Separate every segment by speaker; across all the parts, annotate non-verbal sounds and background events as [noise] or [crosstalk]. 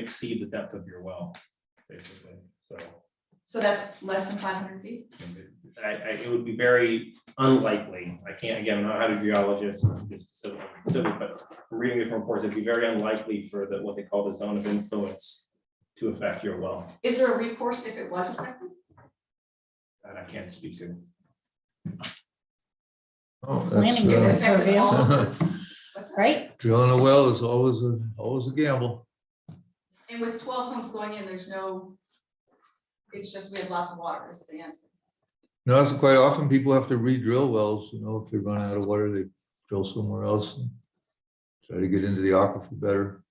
Speaker 1: exceed the depth of your well, basically, so.
Speaker 2: So that's less than five hundred feet?
Speaker 1: I, I, it would be very unlikely, I can't, again, I'm not a geologist, I'm just civil, civil, but from reading different reports, it'd be very unlikely for the, what they call the zone of influence to affect your well,
Speaker 2: Is there a recourse if it wasn't? affected?
Speaker 1: that I can't speak to.
Speaker 3: Oh,
Speaker 4: Planning
Speaker 2: It
Speaker 3: that's,
Speaker 4: board.
Speaker 2: affected all of
Speaker 3: uh,
Speaker 2: them? What's that?
Speaker 3: [laughs]
Speaker 4: right?
Speaker 3: Drilling a well is always, a always a gamble.
Speaker 2: And with twelve homes going in, there's no, it's just we have lots of water is the answer.
Speaker 3: You know, it's quite often people have to re-drill wells, you know, if they run out of water, they drill somewhere else. and Try to get into the aquifer better.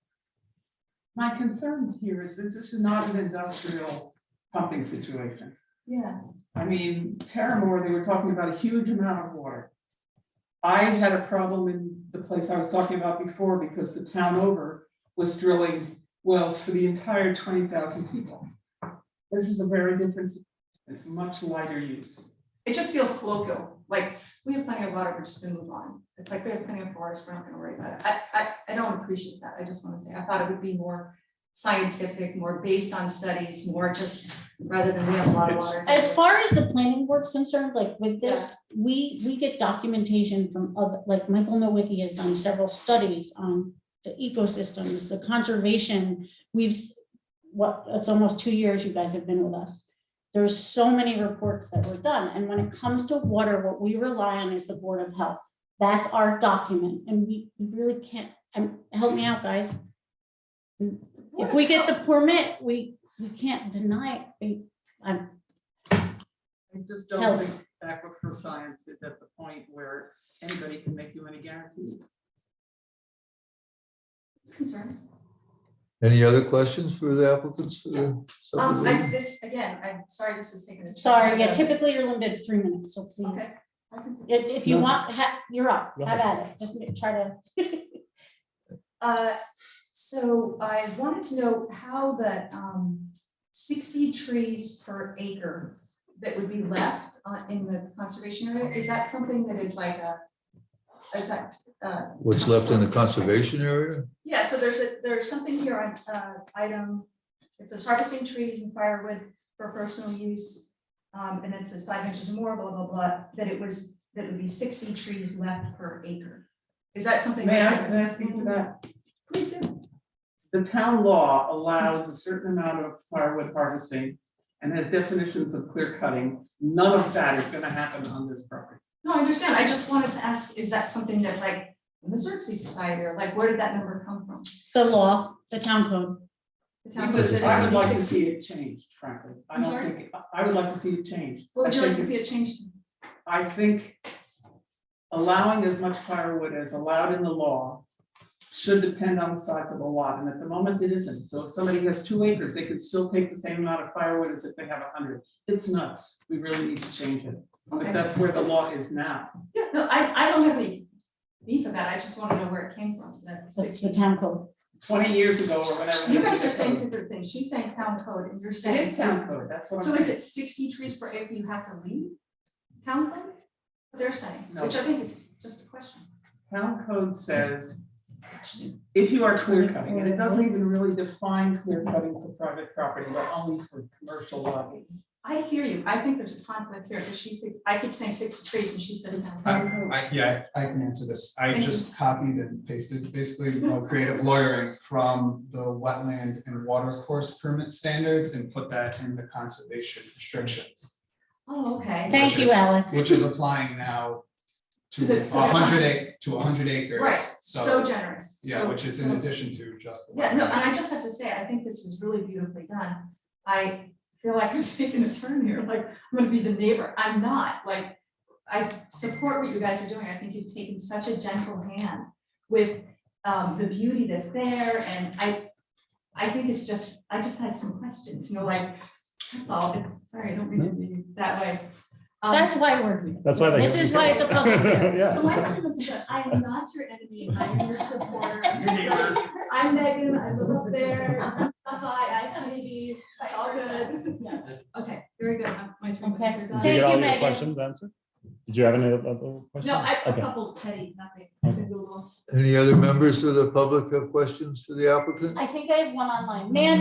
Speaker 5: My concern here is that this is not an industrial pumping situation.
Speaker 2: Yeah.
Speaker 5: I mean, Terramore, they were talking about a huge amount of water. I had a problem in the place I was talking about before because the town over was drilling wells for the entire twenty thousand people. This is a very different, it's much lighter use.
Speaker 2: It just feels colloquial, like we have plenty of water, we're just gonna move on. It's like we have plenty of forest, we're not gonna worry about it. I, I, I don't appreciate that. I just wanna say, I thought it would be more scientific, more based on studies, more just rather than we have a lot of water.
Speaker 4: As far as the planning board's concerned, like with this, we, we get documentation from other, like Michael Nowicki has done several studies on the ecosystems, the conservation. We've, s- what, it's almost two years you guys have been with us. There's so many reports that were done, and when it comes to water, what we rely on is the Board of Health. That's our document, and we we really can't, um, help me out, guys. If we get the permit, we, we can't deny it.
Speaker 5: I just
Speaker 4: Health.
Speaker 5: don't think aquifer science is at the point where anybody can make you any guarantees.
Speaker 2: Concern.
Speaker 3: Any other questions for the applicants? for the
Speaker 2: Um, I,
Speaker 3: subdivision?
Speaker 2: this, again, I'm sorry this is taking. a-
Speaker 4: Sorry, yeah, typically you're limited to three minutes, so please,
Speaker 2: Okay. I can see.
Speaker 4: if, if you
Speaker 3: No.
Speaker 4: want, ha, you're up,
Speaker 3: Go
Speaker 4: have at it, just ma- try to.
Speaker 2: Uh, so I wanted to know how the, um, sixty trees per acre that would be left uh, in the conservation area, is that something that is like a, is that, uh,
Speaker 3: What's left in the conservation area?
Speaker 2: yeah, so there's a, there's something here on, uh, item, it says harvesting trees and firewood for personal use. Um, and it says five inches or more, blah, blah, blah, that it was, that it would be sixty trees left per acre. Is that something?
Speaker 5: May I,
Speaker 2: that's- Mhm.
Speaker 5: may I speak to that?
Speaker 2: Please do.
Speaker 5: the town law allows a certain amount of firewood harvesting and has definitions of clear cutting. None of that is gonna happen on this property.
Speaker 2: No, I understand. I just wanted to ask, is that something that's like in the Xerxes Society or like, where did that number come from?
Speaker 4: The law, the town code,
Speaker 2: The town puts it
Speaker 5: I
Speaker 2: as
Speaker 5: would like to
Speaker 2: 60.
Speaker 5: see it changed, frankly. I
Speaker 2: I'm
Speaker 5: don't
Speaker 2: sorry?
Speaker 5: think, I- I would like to see it changed.
Speaker 2: What would you
Speaker 5: I
Speaker 2: like to
Speaker 5: think
Speaker 2: see it changed? to?
Speaker 5: I think allowing as much firewood as allowed in the law should depend on the size of the lot, and at the moment it isn't. So if somebody has two acres, they could still take the same amount of firewood as if they have a hundred. It's nuts. We really need to change it. But
Speaker 2: Okay,
Speaker 5: that's where the law is now.
Speaker 2: yeah, no, I, I don't have any beef about it. I just want to know where it came from, that
Speaker 4: that's
Speaker 2: sixty.
Speaker 4: the town code.
Speaker 5: twenty years ago or whatever.
Speaker 2: You guys are saying two different things. She's saying town code and you're
Speaker 5: It
Speaker 2: saying.
Speaker 5: is town code, that's what I'm
Speaker 2: So is
Speaker 5: saying.
Speaker 2: it sixty trees per acre you have to leave? Town code? What They're saying,
Speaker 5: No.
Speaker 2: which I think is just a question.
Speaker 5: Town code says, if you are clear cutting, and it doesn't even really define clear cutting for private property, but only for commercial lobby.
Speaker 2: I hear you. I think there's a conflict here because she's, I keep saying sixty trees and she says. town
Speaker 6: I,
Speaker 2: code.
Speaker 6: I- yeah, I can answer this. I
Speaker 2: Thank you.
Speaker 6: just copied and pasted basically uh, creative lawyering from the wetland and water course permit standards and put that in the conservation restrictions,
Speaker 2: Oh, okay.
Speaker 4: Thank you,
Speaker 6: is-
Speaker 4: Alex.
Speaker 6: which is applying now
Speaker 2: To the-
Speaker 6: to
Speaker 2: to the
Speaker 6: a hundred ac- to a hundred acres.
Speaker 2: Right, so generous.
Speaker 6: Yeah,
Speaker 2: so-
Speaker 6: which is in
Speaker 2: so-
Speaker 6: addition to just the.
Speaker 2: Yeah, no,
Speaker 6: wetland.
Speaker 2: and I just have to say, I think this is really beautifully done. I feel like I'm [laughs] taking a turn here, like I'm gonna be the neighbor. I'm not, like, I support what you guys are doing. I think you've taken such a gentle hand with um the beauty that's there and I I think it's just, I just had some questions, you know, like, that's all. Sorry, I don't mean to be that way. Um,
Speaker 4: That's why we're here.
Speaker 7: That's why they.
Speaker 4: This is why it's a public hearing.
Speaker 2: So my
Speaker 7: Yeah.
Speaker 2: argument is that I am not your enemy, I'm your supporter. I'm Megan, I live up there, hi, I Hades, it's all good. Yeah. Okay, very good, Um, my three
Speaker 4: Okay.
Speaker 2: minutes are
Speaker 7: Did
Speaker 2: done.
Speaker 4: Thank
Speaker 7: you get
Speaker 4: you,
Speaker 7: all your
Speaker 4: Megan.
Speaker 7: questions answered? Did you have any other other questions?
Speaker 2: No, I, a
Speaker 7: Okay.
Speaker 2: couple petty, nothing,
Speaker 7: Okay.
Speaker 2: Google.
Speaker 3: Any other members of the public have questions for the applicant?
Speaker 4: I think I have one online. Nan,